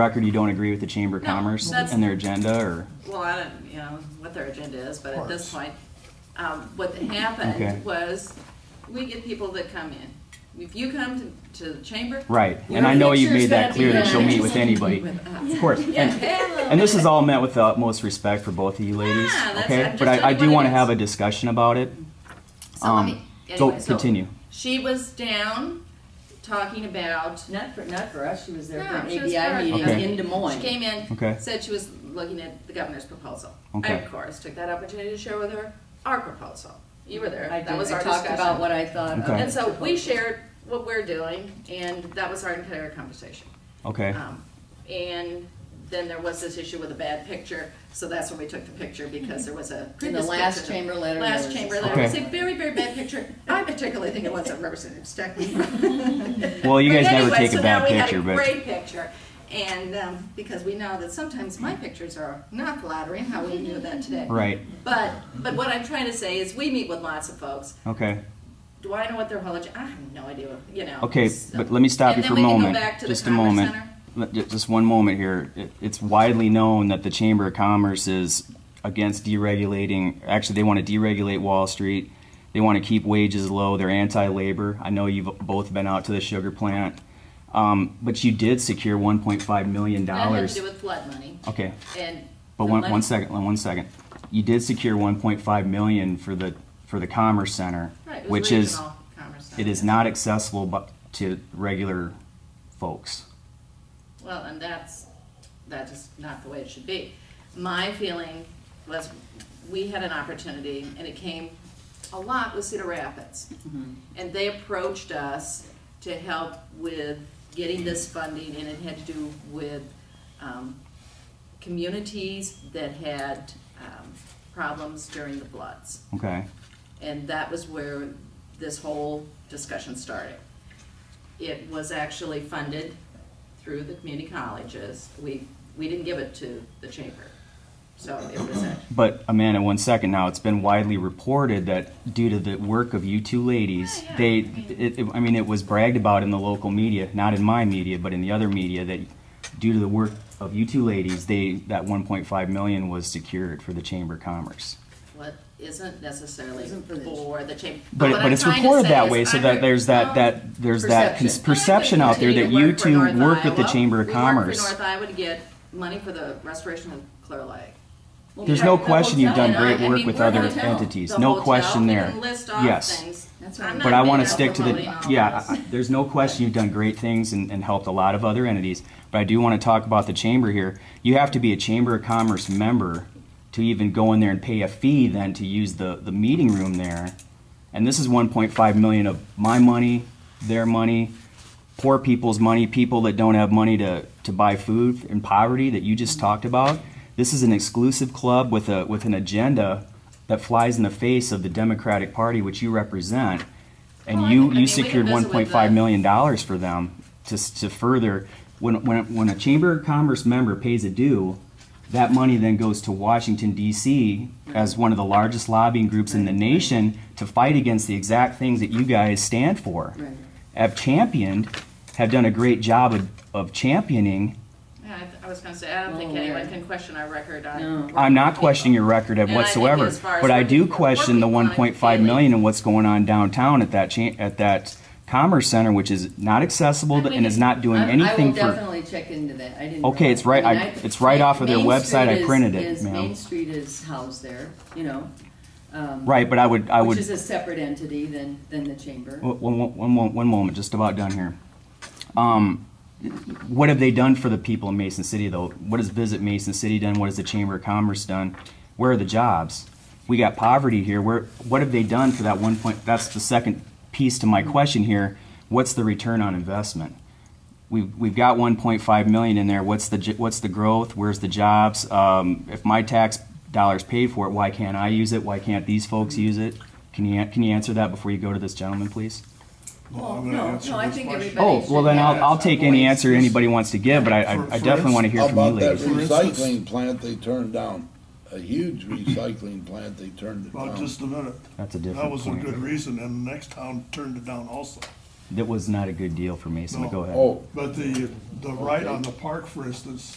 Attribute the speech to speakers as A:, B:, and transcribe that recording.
A: record, you don't agree with the Chamber of
B: No,
A: Commerce
B: that's-
A: and their agenda, or?
B: Well, I don't, you know, what their agenda is, but at this
C: Of course.
B: point, um, what
A: Okay.
B: happened was, we get people that come in. If you come to, to the chamber.
A: Right,
B: your
A: and I know you've made
B: picture's
A: that
B: gonna be
A: clear that she'll
B: there.
A: meet with anybody.
B: uh, With us.
A: Of course. And,
B: Yeah.
A: and this is all meant with the utmost respect for both of you ladies,
B: Yeah, that's- I'm
A: okay?
B: just
A: But I, I
B: telling
A: do
B: you what
A: want to
B: it is.
A: have a discussion about it.
B: So let
A: Um,
B: me,
A: so
B: anyway, so
A: continue.
B: She was down talking about,
D: Not for, not for us, she was there for
B: No,
D: an
B: she was for-
D: ABI
A: Okay.
D: meeting in Des Moines.
B: she came in,
A: Okay.
B: said she was looking at the governor's proposal. I,
A: Okay.
B: of course, took that opportunity to share with her our proposal. You were there,
D: I
B: that
D: did,
B: was
D: I
B: our
D: talked
B: discussion.
D: about what I thought. of
A: Okay.
D: it.
B: And so we shared what we're doing, and that was our entire conversation.
A: Okay,
B: Um, And then there was this issue with a bad picture, so that's when we took the picture, because there was a
D: In the
B: previous
D: last
B: picture.
D: chamber letter. there
B: Last
D: was-
B: chamber, there was a
A: Okay.
B: very, very bad picture. I particularly think it was a Representative Steckman.
A: Well, you
B: But
A: guys never
B: anyway,
A: take a
B: so now
A: bad
B: we had
A: picture, but-
B: Great picture, and, um, because we know that sometimes my pictures are not flattering, how we knew that today.
A: right,
B: But, but what I'm trying to say is, we meet with lots of folks,
A: okay.
B: do I know what their whole agenda? I have no idea. What, you know.
A: Okay,
B: so-
A: but let me stop you
B: uh, and
A: for a
B: then we can go
A: moment.
B: back to the
A: Just a
B: Commerce
A: moment.
B: Center.
A: Let- ju- Just one moment here. It- It's widely known that the Chamber of Commerce is against deregulating, actually, they want to deregulate Wall Street. They want to keep wages low. They're anti-labor. I know you've both been out to the sugar plant. Um, But you did secure $1.5 million.
B: That had to do with flood money
A: Okay,
B: and.
A: but
B: the
A: one,
B: money-
A: one second, one second. You did secure 1.5 million for the, for the Commerce Center,
B: Right, it was
A: which is,
B: regional commerce center.
A: it is not accessible bu- to regular folks.
B: Well, and that's that is not the way it should be. My feeling was we had an opportunity, and it came a lot with Cedar Rapids, and they approached us to help with getting this funding, and it had to do with um, communities that had um, problems during the floods.
A: Okay,
B: And that was where this whole discussion started. It was actually funded through the community colleges. We, we didn't give it to the chamber. So it was, a-
A: but Amanda, one second now. It's been widely reported that due to the work of you two ladies,
B: Yeah, yeah,
A: they,
B: I mean-
A: it, it, I mean, it was bragged about in the local media, not in my media, but in the other media, that due to the work of you two ladies, they that 1.5 million was secured for the Chamber of Commerce.
B: what isn't necessarily
D: Isn't for the-
B: for the chamber.
A: But,
B: what
A: but
B: I'm
A: it's
B: trying to
A: reported
B: say
A: that
B: is
A: way so
B: I'm
A: that
B: re-
A: there's that,
B: no,
A: that, there's that cons-
D: Perception.
A: perception out there
B: Continue
A: that
B: to
A: you
B: work for
A: two
B: North
A: work at the
B: Iowa.
A: Chamber of
B: We worked
A: Commerce.
B: for North Iowa to get money for the restoration of Clear Lake.
D: Well,
A: There's
D: we
A: no
D: have the
A: question you've
D: hotel.
A: done
B: And I-
A: great
B: I
A: work
B: mean,
A: with
B: we're
A: other
B: hotel.
A: entities,
B: The
A: no
B: hotel,
A: question
B: we
A: there.
B: can list off
A: Yes.
B: things.
D: That's
B: I'm
D: right.
B: not
A: But I want to
B: being
A: stick to the,
B: promoting all
A: yeah,
B: this.
A: I- I- there's no question you've done great things and, and helped a lot of other entities. But I do want to talk about the chamber here. You have to be a Chamber of Commerce member to even go in there and pay a fee then to use the, the meeting room there. And this is 1.5 million of my money, their money, poor people's money, people that don't have money to, to buy food in poverty that you just talked about. This is an exclusive club with a, with an agenda that flies in the face of the Democratic Party, which you represent. And
B: Well, I
A: you, you
B: think- I mean, we
A: secured
B: can
A: one
B: visit with
A: point five
B: the-
A: million dollars for them to, s- to further, when, when, when a Chamber of Commerce member pays a due, that money then goes to Washington DC as one of the largest lobbying groups in the nation to fight against the exact things that you guys stand for.
D: Right.
A: Have championed, have done a great job of, of championing.
B: Yeah, I, th- I was gonna say, I don't
D: Well
B: think anyone
D: aware.
B: can question our record
D: No.
B: on.
A: I'm not questioning your record of
B: And I think
A: whatsoever,
B: as far as
A: but I do
B: working-
A: question the
B: working on
A: one
B: it
A: point five
B: daily.
A: million and what's going on downtown at that cha- at that commerce center, which is not accessible
B: And we
A: and is
B: can-
A: not doing
D: I-
A: anything
D: I will
A: for.
D: definitely check into that, I didn't.
A: Okay, it's right-
D: I mean,
A: I- it's right off of their
D: Main
A: website. I
D: Street is-
A: printed it,
D: is-
A: ma'am.
D: Main Street is housed there, you know. um,
A: Right, but I would, I would.
D: Which is a separate entity than, than the chamber.
A: One, one- one mo- one moment, just about done here. Um, what have they done for the people in Mason City, though? What has Visit Mason City done? What has the Chamber of Commerce done? Where are the jobs? We got poverty here. Where, what have they done for that one point? That's the second piece to my question here. What's the return on investment? We've, we've got 1.5 million in there. What's the, j- what's the growth? Where's the jobs? Um, if my tax dollars paid for it, why can't I use it? Why can't these folks use it? Can you, an- can you answer that before you go to this gentleman, please?
D: Well,
C: I'm gonna
D: no,
C: answer
D: no, I
C: this
D: think
C: question.
D: everybody-
A: Oh, well, then I'll, I'll take any answer anybody wants to give, but I, I I definitely want to hear from you
E: How about that
A: ladies.
E: recycling plant they turned down? A huge recycling plant they turned it
C: Well,
E: down.
C: just a minute.
A: That's a
C: That
A: different
C: was a good
A: point.
C: reason, and the next town turned it down also.
A: That was not a good deal for Mason, but go ahead.
E: Oh,
C: But the, the right on the park, for instance,